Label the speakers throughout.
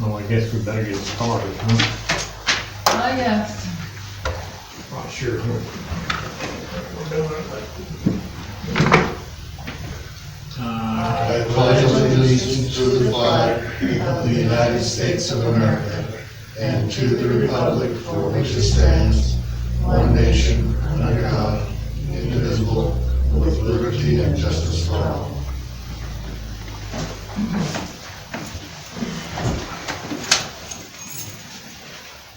Speaker 1: Well, I guess we better get started, huh?
Speaker 2: I guess.
Speaker 1: Not sure.
Speaker 3: I pledge allegiance to the flag of the United States of America and to the republic for which it stands, one nation, under God, indivisible, with liberty and justice for all.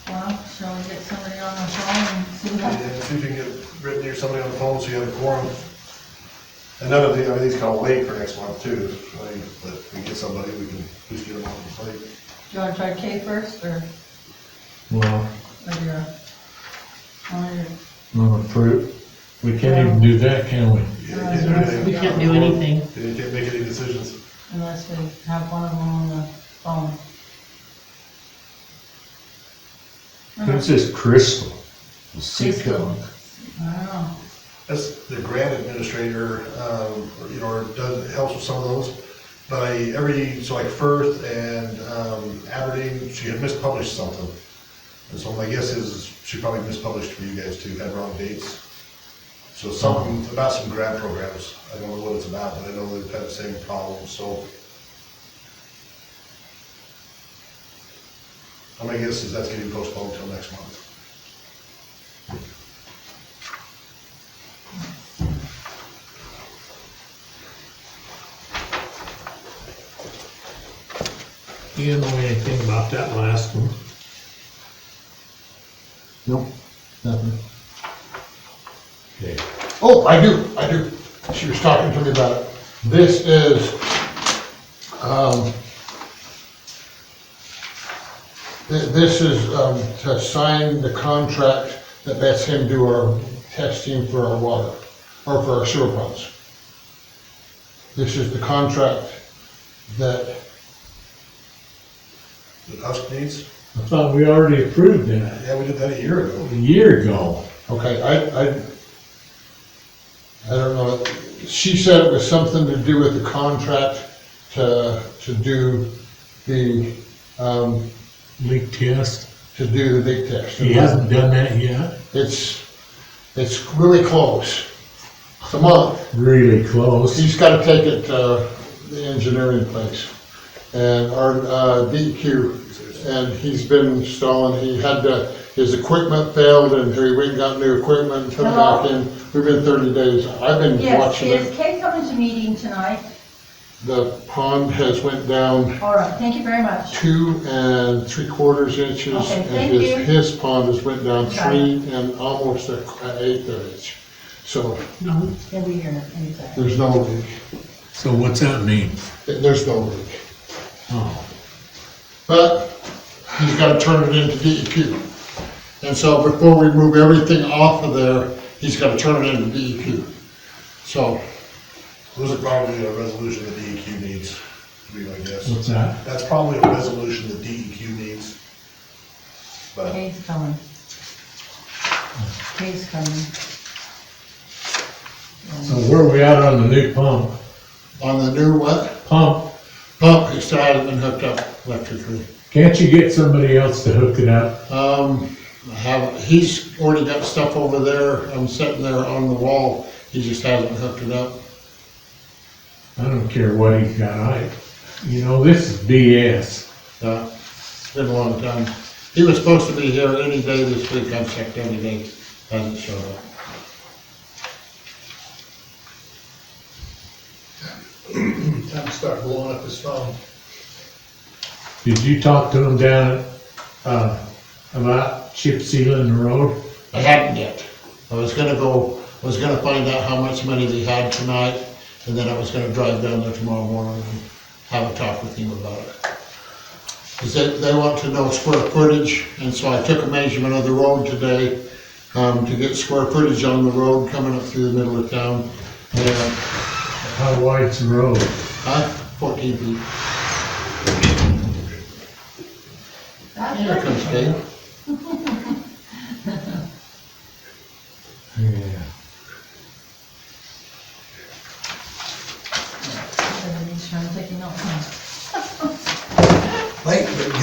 Speaker 2: Well, shall we get somebody on the phone and see what?
Speaker 3: If you can get Brittany or somebody on the phone so you have a quorum. And none of the, everything's kind of late for next month too, like, but if we get somebody, we can just get them on the plate.
Speaker 2: Do you wanna try Kay first, or,
Speaker 1: Well,
Speaker 2: or your, or your,
Speaker 1: no, for, we can't even do that, can we?
Speaker 3: You can't do anything.
Speaker 4: Uh, We can't do anything.
Speaker 3: You can't make any decisions.
Speaker 2: unless we have one of them on the phone. I don't
Speaker 1: Who's this Crystal?
Speaker 2: Crystal. know,
Speaker 3: That's the grant administrator, um, or, you know, or does, helps with some of those. But I, every, so like Firth and, um, Aberdeen, she had mispublished something. And so my guess is she probably mispublished for you guys too, had wrong dates. So something about some grant programs, I don't know what it's about, but I know they've had the same problem, so. And My guess is that's getting postponed till next month.
Speaker 1: You don't know anything about that last one?
Speaker 5: Nope, nothing.
Speaker 1: Okay.
Speaker 5: Oh, I do, I do. She was talking to me about it. This is, um, thi- this is, um, to sign the contract that lets him do our testing for our water, or for our sewer pumps. This is the contract that,
Speaker 3: The Husk needs,
Speaker 1: I thought we already approved that
Speaker 3: yeah, we did that a year ago.
Speaker 1: a year ago.
Speaker 5: okay, I, I, I don't know. She said it was something to do with the contract to, to do the, um,
Speaker 1: Leak test.
Speaker 5: to do the big test.
Speaker 1: He hasn't done that yet.
Speaker 5: It's, it's really close. It's a month.
Speaker 1: Really close.
Speaker 5: He's gotta take it to the engineering place and our, uh, DEQ. And he's been installing, he had to, his equipment failed and he went and got new equipment and put it back in. We've been thirty days. I've been
Speaker 2: Uh-huh. yes,
Speaker 5: watching
Speaker 2: is
Speaker 5: it.
Speaker 2: Kay coming to meeting tonight?
Speaker 5: The pond has went down
Speaker 2: All right, thank you very much.
Speaker 5: two and three quarters inches.
Speaker 2: Okay,
Speaker 5: and
Speaker 2: thank
Speaker 5: his-
Speaker 2: you.
Speaker 5: His pond has went down
Speaker 2: Got
Speaker 5: three and almost a an eighth of an inch. So
Speaker 4: No,
Speaker 2: He'll be here any second.
Speaker 5: there's no leak,
Speaker 1: So what's that mean?
Speaker 5: there's no leak.
Speaker 1: Oh,
Speaker 5: But he's gotta turn it into DEQ. And so before we move everything off of there, he's gotta turn it into DEQ. So
Speaker 3: Those are probably a resolution the DEQ needs, would be my guess.
Speaker 1: what's that?
Speaker 3: That's probably a resolution the DEQ needs. But
Speaker 2: Kay's coming. Kay's coming.
Speaker 1: So where are we at on the new pump?
Speaker 5: on the new what?
Speaker 1: Pump,
Speaker 5: Pump, it still hasn't been hooked up electrically.
Speaker 1: can't you get somebody else to hook it up?
Speaker 5: Um, I have, he's already got stuff over there, I'm sitting there on the wall, he just hasn't hooked it up.
Speaker 1: I don't care what he's got, I, you know, this is BS.
Speaker 5: Uh, It's been a long time. He was supposed to be here any day this week, I've checked any day, hasn't showed up.
Speaker 3: time to start blowing up his phone.
Speaker 1: Did you talk to him down at, uh, about chip sealing the road?
Speaker 5: I hadn't yet. I was gonna go, I was gonna find out how much money they had tonight, and then I was gonna drive down there tomorrow morning and have a talk with him about it. Cause they, they want to know square footage, and so I took a measurement of the road today, um, to get square footage on the road coming up through the middle of town. And,
Speaker 1: How wide's the road?
Speaker 5: huh, fourteen feet.
Speaker 2: That's
Speaker 5: Here
Speaker 2: pretty.
Speaker 5: comes Dave.